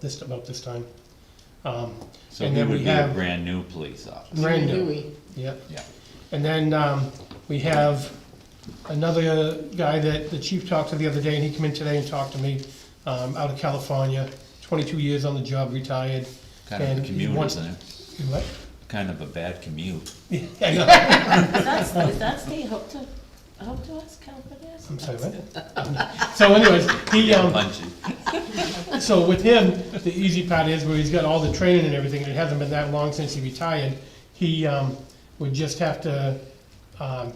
this, about this time. Um, So And he then would we be a have- brand new police officer. Brand new. Huey. yep. Yeah. And then, um, we have another guy that the chief talked to the other day, and he came in today and talked to me, um, out of California, twenty-two years on the job, retired. Kind of And a commute, one- isn't it? You what? Kind of a bad commute. Yeah, I know. Is that, is that state hope to, hope to us, California? I'm sorry, what? So anyways, he, um, Punchy. So with him, the easy part is where he's got all the training and everything, and it hasn't been that long since he retired. He um, would just have to um,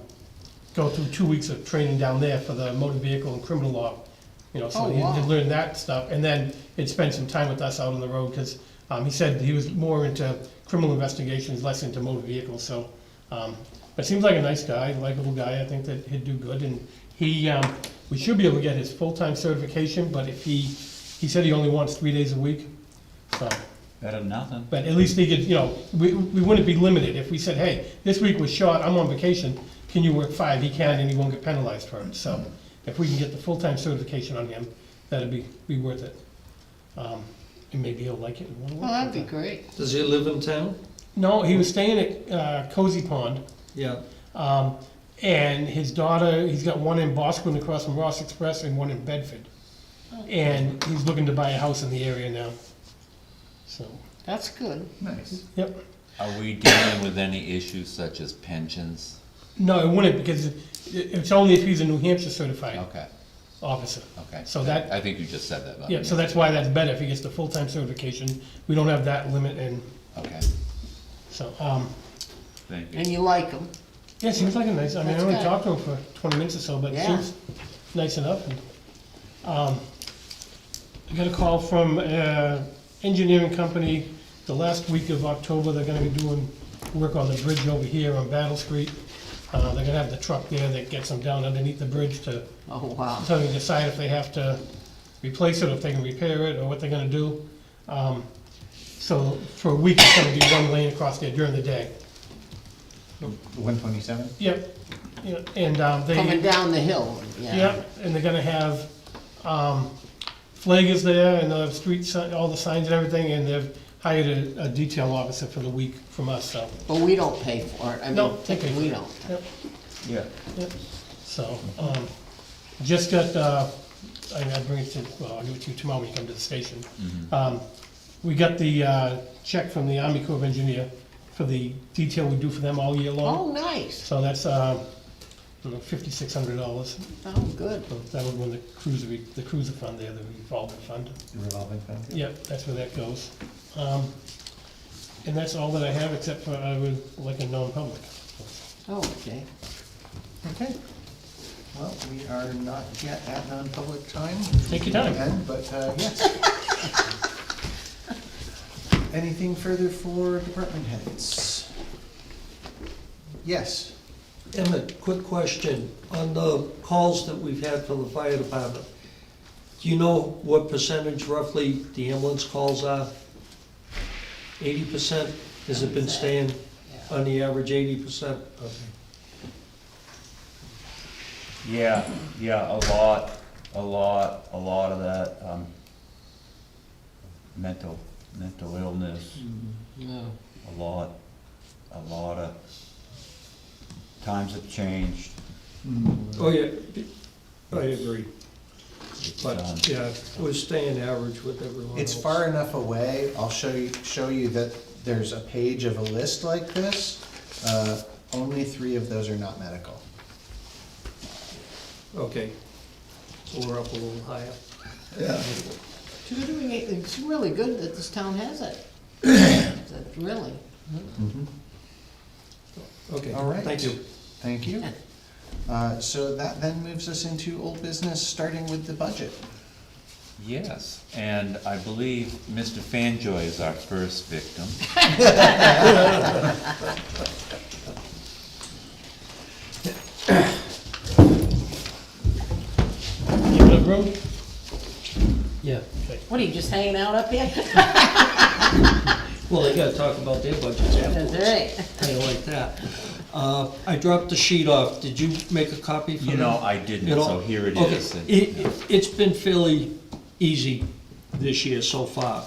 go through two weeks of training down there for the motor vehicle and criminal law. You know, so Oh, he wow. had learn that stuff, and then he'd spend some time with us out on the road, because he said he was more into criminal investigations, less into motor vehicles, so. um, But seems like a nice guy, likable guy, I think that he'd do good, and he, um, we should be able to get his full-time certification, but if he, he said he only wants three days a week, so. Better than nothing. But at least he could, you know, we, we wouldn't be limited if we said, hey, this week was short, I'm on vacation, can you work five? He can, and he won't get penalized for it, so if we can get the full-time certification on him, that'd be, be worth it. Um, And maybe he'll like it and wanna work. Well, that'd with be it. great. Does he live in town? No, he was staying at uh, Cozy Pond, Yeah. um, and his daughter, he's got one in Bosquen across from Ross Express and one in Bedford. And he's looking to buy a house in the area now, so, That's good. Nice. yep. Are we dealing with any issues such as pensions? No, it wouldn't, because it- it's only if he's a New Hampshire certified Okay, officer. okay. So that- I think you just said that. but- Yeah, so that's why that's better, if he gets the full-time certification, we don't have that limit, and Okay, so, um, thank you. And you like them. yeah, seems like a nice, I mean, I That's only good. talked to him for twenty minutes or so, but it Yeah. seems nice enough. and, Um, I got a call from, uh, engineering company, the last week of October, they're gonna be doing work on the bridge over here on Battle Street. Uh, they're gonna have the truck there that gets them down underneath the bridge to Oh, wow. until they decide if they have to replace it, or if they can repair it, or what they're gonna do. Um, So for a week, it's gonna be one lane across there during the day. One twenty-seven? Yep, yep, and um, they. Coming down the hill, yeah. Yep, and they're gonna have, um, flaggers there and the street sign, all the signs and everything, and they've hired a, a detail officer for the week from us, so. But we don't pay for it. I No, mean, they pay for we it. don't. Yep. Yeah. Yep. So, um, just got, uh, I I bring it to, well, I'll give it to you tomorrow when you come to the station. Um, We got the, uh, check from the Army Corps of Engineer for the detail we do for them all year long. Oh, nice. So that's, uh, I don't know, fifty-six hundred dollars. Oh, good. That would win the cruiser, the cruiser fund there, the revolving fund. Revolving fund? Yep, that's where that goes. Um, And that's all that I have, except for I would like a non-public. Oh, okay. Okay. Well, we are not yet at non-public time. Take your time. Again, But, uh, yes. Anything further for department heads? Yes, Emmett, quick question. On the calls that we've had from the fire department, do you know what percentage roughly the ambulance calls are? Eighty percent? Has it been staying on the average eighty percent? Yeah, yeah, a lot, a lot, a lot of that, um, mental, mental illness, Yeah. a lot, a lot of, times have changed. Oh, yeah, I agree. It's, um, But, yeah, we're staying average with everyone else. it's far enough away, I'll show you, show you that there's a page of a list like this. Uh, Only three of those are not medical. Okay. So we're up a little higher. So You're doing it, it's really good that this town has it. That's Really. Okay, All right. thank you. Thank you. Uh, So that then moves us into old business, starting with the budget. Yes, and I believe Mr. Fanjoy is our first victim. You have a room? Yeah. Okay. What, are you just hanging out up here? Well, they gotta talk about their budgets That's afterwards. right. Kind of like that. Uh, I dropped the sheet off. Did you make a copy for me? You know, I didn't, At all? so here it Okay. is. It, it- it's been fairly easy this year so far.